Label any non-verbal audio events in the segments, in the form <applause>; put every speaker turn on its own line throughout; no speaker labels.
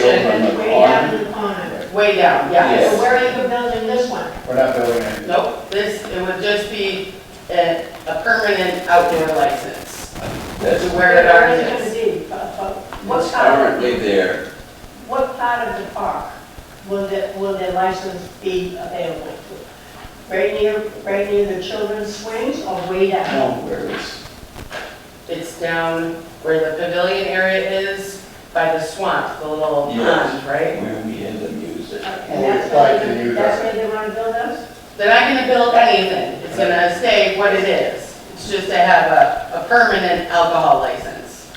kitchen,
Way down in the corner.
way down, yeah.
So where are you building this one?
We're not building it.
Nope, this, it would just be a, a permanent outdoor license to
That's
where it already
Where is
is.
it gonna be? Uh, uh, What
what's
part,
currently there.
what part of the park will the, will the license be available to? Right near, right near the children's swings or way down?
No, where it's,
It's down where the pavilion area is by the swamp, the little
Yes.
pond, right?
Where we end up using.
And
Well,
that's
it's like
where,
the new
they- that's where they wanna build us?
They're not gonna build anything, it's gonna stay what it is. It's just to have a, a permanent alcohol license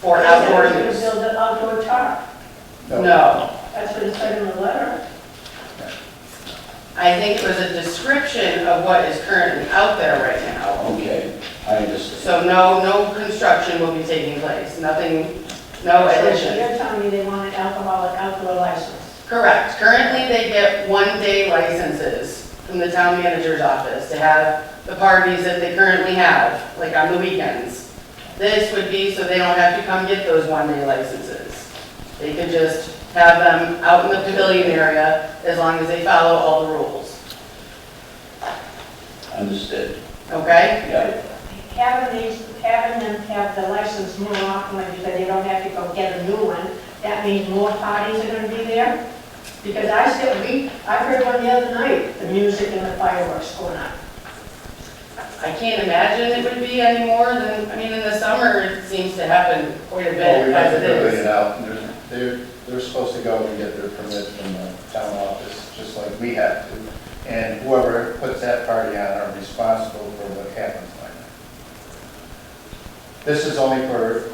for outdoor
They're gonna
use.
build an outdoor park,
no,
No,
that's what it said in the letter.
I think it was a description of what is currently out there right now.
Okay, I understand.
So no, no construction will be taking place, nothing, no addition.
They're telling me they want an alcoholic outdoor license.
Correct. Currently, they get one-day licenses from the town manager's office to have the parties that they currently have, like on the weekends. This would be so they don't have to come get those one-day licenses. They could just have them out in the pavilion area as long as they follow all the rules,
Understood.
okay?
Yeah.
Having these, having them have the license more often, because they don't have to go get a new one, that means more parties are gonna be there? Because I still, we, I heard one the other night, the music and the fireworks going on.
I can't imagine it would be any more than, I mean, in the summer, it seems to happen quite a
well, Oh, we
bit
have to
as it
build it
is.
out. and there's- They're, they're supposed to go and get their permit from the town office, just like we have to. And whoever puts that party on are responsible for what happens by night. This is only for,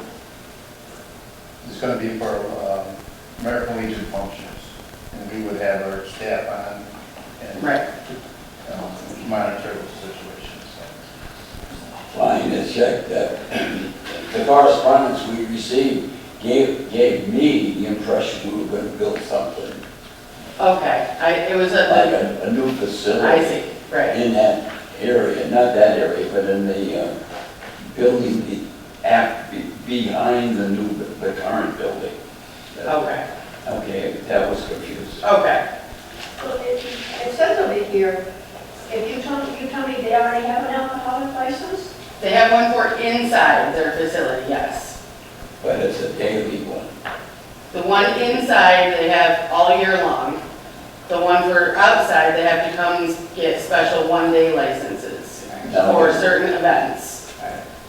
it's gonna be for um, American Legion functions. And we would have our staff on and
Right.
um, monitor the situation, so.
Fine, it's checked that. <clears throat> The correspondence we received gave, gave me the impression we were gonna build something,
Okay, I, it was
like
a,
a, a new facility.
I see, right.
in that area, not that area, but in the uh, building be- app be- behind the new, the current building.
Okay,
Okay, that was confusing.
okay.
Well, It it says over here, if you tell, you tell me they already have an alcoholic license?
They have one for inside their facility, yes.
But it's a daily one.
The one inside, they have all year long. The one for outside, they have to come get special one-day licenses for certain events.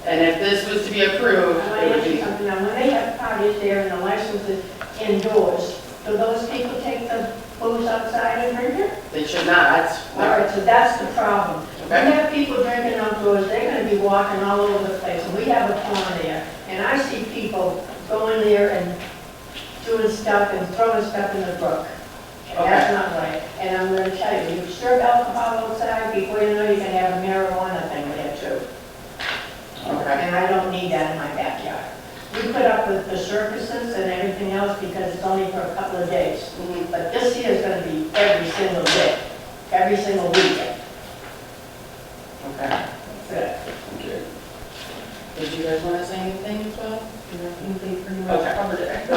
And if this was to be approved,
I want
it
to
would
ask you
be,
something, now, when they have parties there and the license is indoors, do those people take the booze outside and drink it?
they should not.
All right, so that's the problem. When
Okay?
you have people drinking outdoors, they're gonna be walking all over the place, and we have a pond there, and I see people going there and doing stuff and throwing stuff in the brook. And that's not right, and I'm gonna tell you, you serve alcohol outside, before you know, you can have a marijuana thing there too.
Okay.
And I don't need that in my backyard. We put up with the circuses and everything else because it's only for a couple of days.
Mhm.
But this year is gonna be every single day, every single weekend.
Okay.
Okay.
Did you guys want to say anything as well?
They pretty
much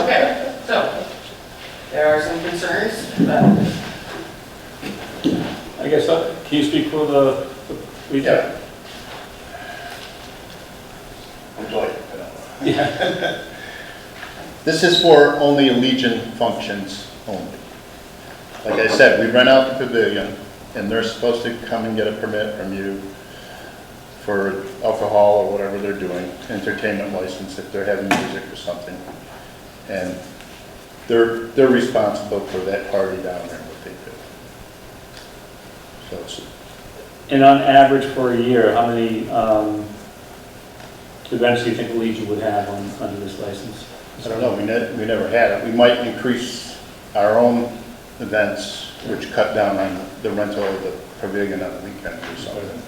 Okay, so, there are some concerns, but
I guess, uh, can you speak for the, the region?
Yeah. Would you like to put on?
Yeah.
This is for only Legion functions only. Like I said, we rent out the pavilion, and they're supposed to come and get a permit from you for alcohol or whatever they're doing, entertainment license if they're having music or something. And they're, they're responsible for that party down there, what they do. So it's
And on average for a year, how many um, events do you think Legion would have on- under this license?
I don't know, we ne, we never had it. We might increase our own events, which cut down on the rental of the pavilion on the weekends or something.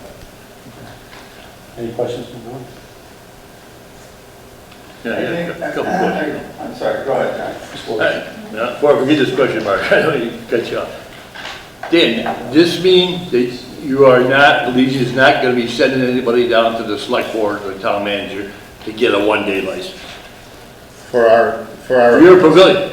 Any questions from the board?
Yeah, yeah, a couple questions. Uh,
I'm sorry, go ahead, John.
Hey, now, Before I forget this question, Mark, <laughs> I know you cut you off. Dan, this means that you are not, Legion is not going to be sending anybody down to the select board or the town manager to get a one-day license?
For our, for
For
our,
your pavilion?